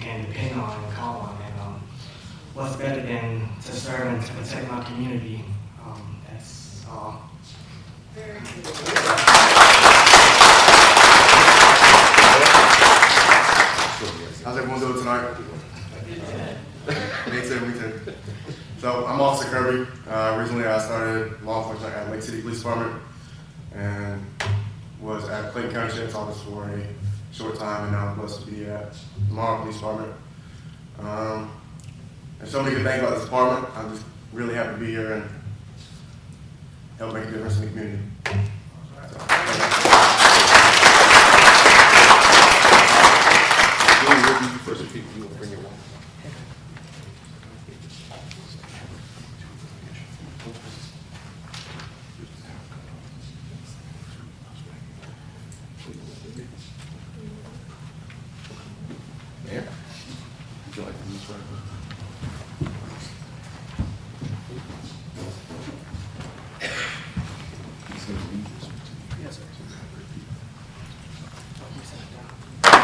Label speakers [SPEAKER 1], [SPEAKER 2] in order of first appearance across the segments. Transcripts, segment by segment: [SPEAKER 1] can depend on and call on. And um, what's better than to serve and to protect my community? Um, that's all.
[SPEAKER 2] How's everyone doing tonight? Me too, me too. So I'm Officer Kirby. Uh, originally, I started law enforcement at Lake City Police Department and was at Clayton County Sheriff's Office for a short time, and now I'm blessed to be at Lamar Police Department. Um, there's so many good things about this department. I'm just really happy to be here and help make a difference in the community. So, thank you.
[SPEAKER 3] Julie, what do you first, if you you will bring your one? Mayor, would you like to use one? He's gonna read this one to you.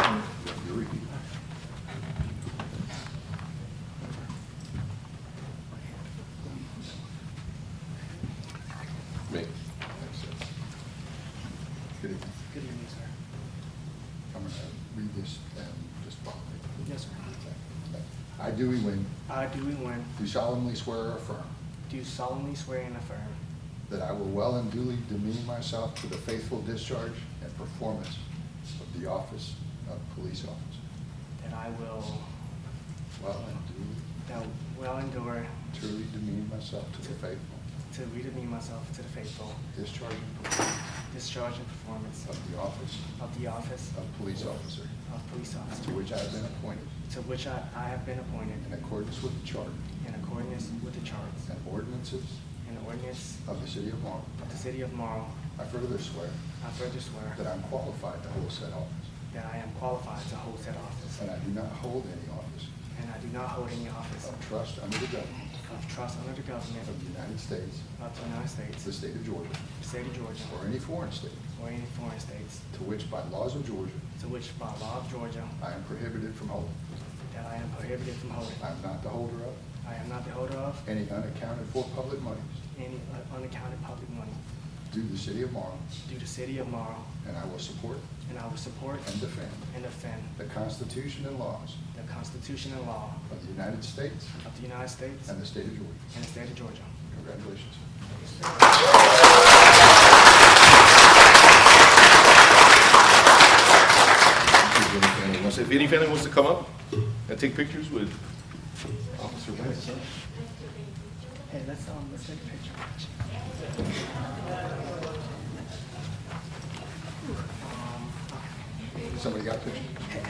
[SPEAKER 3] You have to repeat it. Me.
[SPEAKER 4] Good evening.
[SPEAKER 1] Good evening, sir.
[SPEAKER 4] I'm going to read this and just follow me.
[SPEAKER 1] Yes, sir. Uh,
[SPEAKER 4] I, Dewey Wing,
[SPEAKER 1] I, Dewey Nguyen,
[SPEAKER 4] do solemnly swear or affirm
[SPEAKER 1] do solemnly swear and affirm
[SPEAKER 4] that I will well and duly demean myself to the faithful discharge and performance of the office of police officer.
[SPEAKER 1] that I will
[SPEAKER 4] Well and
[SPEAKER 1] that well endure
[SPEAKER 4] duly, truly demean myself to the faithful
[SPEAKER 1] to redeem myself to the faithful,
[SPEAKER 4] discharge and performance
[SPEAKER 1] discharge and performance
[SPEAKER 4] of the office
[SPEAKER 1] of the office
[SPEAKER 4] of police officer
[SPEAKER 1] of police
[SPEAKER 4] to
[SPEAKER 1] officer,
[SPEAKER 4] which I have been appointed
[SPEAKER 1] to which I I have been appointed
[SPEAKER 4] in accordance with the charter
[SPEAKER 1] in accordance with the charts
[SPEAKER 4] and ordinances
[SPEAKER 1] and ordinance
[SPEAKER 4] of the city of Marlborough.
[SPEAKER 1] of the city of Marl.
[SPEAKER 4] I further swear
[SPEAKER 1] I further swear
[SPEAKER 4] that I'm qualified to hold said office,
[SPEAKER 1] that I am qualified to hold said office,
[SPEAKER 4] and I do not hold any office
[SPEAKER 1] and I do not hold any office
[SPEAKER 4] of trust under the government
[SPEAKER 1] of trust under the government
[SPEAKER 4] of the United States,
[SPEAKER 1] of the United States,
[SPEAKER 4] the
[SPEAKER 1] the
[SPEAKER 4] state of Georgia,
[SPEAKER 1] state of Georgia,
[SPEAKER 4] or any foreign state,
[SPEAKER 1] or any foreign states,
[SPEAKER 4] to which by laws of Georgia
[SPEAKER 1] to which by law of Georgia
[SPEAKER 4] I am prohibited from holding.
[SPEAKER 1] that I am prohibited from holding.
[SPEAKER 4] I am not the holder of
[SPEAKER 1] I am not the holder of
[SPEAKER 4] any unaccounted for public monies
[SPEAKER 1] any unaccounted public money
[SPEAKER 4] due to the city of Marlin,
[SPEAKER 1] due to city of Marl,
[SPEAKER 4] and I will support
[SPEAKER 1] and I will support
[SPEAKER 4] and defend
[SPEAKER 1] and defend
[SPEAKER 4] the Constitution and laws
[SPEAKER 1] the Constitution and law
[SPEAKER 4] of the United States
[SPEAKER 1] of the United States
[SPEAKER 4] and the state of Georgia.
[SPEAKER 1] and the state of Georgia.
[SPEAKER 4] Congratulations.
[SPEAKER 3] If any family wants- If any family wants to come up and take pictures with Officer Wentz.
[SPEAKER 1] Hey, let's, um, let's take a picture.
[SPEAKER 4] Somebody got a picture?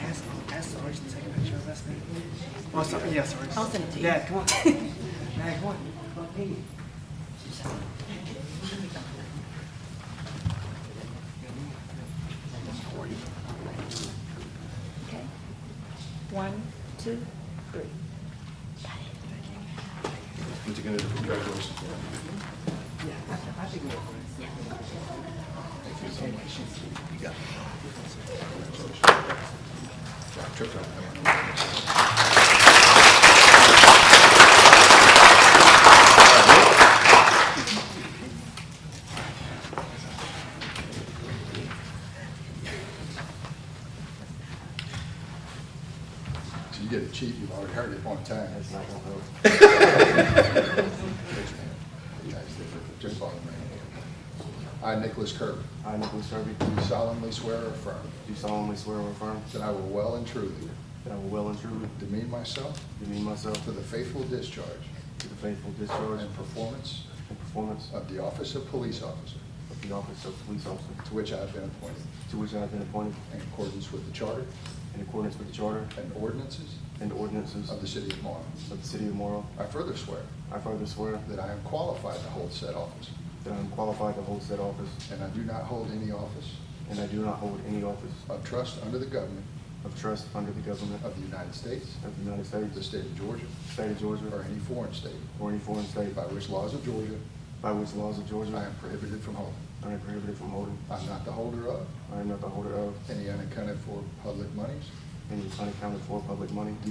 [SPEAKER 1] Ask, ask Sarge to take a picture of us, man. Oh, sorry, yeah, Sarge.
[SPEAKER 5] I'll send it to you.
[SPEAKER 1] Yeah, come on. Yeah, come on. Come on, hey.
[SPEAKER 5] Okay. One, two, three.
[SPEAKER 3] Once again, congratulations.
[SPEAKER 1] Yeah, I- I think we're good.
[SPEAKER 4] So you get a cheat, you've already heard it one time. Just follow me. I, Nicholas Kirby,
[SPEAKER 6] I, Nicholas Kirby,
[SPEAKER 4] do solemnly swear or affirm
[SPEAKER 6] do solemnly swear or affirm
[SPEAKER 4] that I will well and truly
[SPEAKER 6] that I will well and truly
[SPEAKER 4] demean myself
[SPEAKER 6] demean myself
[SPEAKER 4] to the faithful discharge
[SPEAKER 6] to the faithful discharge
[SPEAKER 4] and performance
[SPEAKER 6] and performance
[SPEAKER 4] of the office of police officer
[SPEAKER 6] of the office of police officer
[SPEAKER 4] to which I have been appointed
[SPEAKER 6] to which I have been appointed
[SPEAKER 4] in accordance with the charter
[SPEAKER 6] in accordance with the charter
[SPEAKER 4] and ordinances
[SPEAKER 6] and ordinances
[SPEAKER 4] of the city of Marlin.
[SPEAKER 6] of the city of Morrow.
[SPEAKER 4] I further swear
[SPEAKER 6] I further swear
[SPEAKER 4] that I am qualified to hold said office
[SPEAKER 6] that I am qualified to hold said office
[SPEAKER 4] and I do not hold any office
[SPEAKER 6] and I do not hold any office
[SPEAKER 4] of trust under the government
[SPEAKER 6] of trust under the government
[SPEAKER 4] of the United States,
[SPEAKER 6] of the United
[SPEAKER 4] the
[SPEAKER 6] States,
[SPEAKER 4] state of Georgia,
[SPEAKER 6] state of
[SPEAKER 4] or
[SPEAKER 6] Georgia,
[SPEAKER 4] any foreign state,
[SPEAKER 6] or any foreign state
[SPEAKER 4] by which laws of Georgia
[SPEAKER 6] by which laws of
[SPEAKER 4] I am
[SPEAKER 6] Georgia
[SPEAKER 4] prohibited from holding.
[SPEAKER 6] I am prohibited from holding.
[SPEAKER 4] I'm not the holder of
[SPEAKER 6] I am not the holder of
[SPEAKER 4] any unaccounted for public monies
[SPEAKER 6] any unaccounted for public money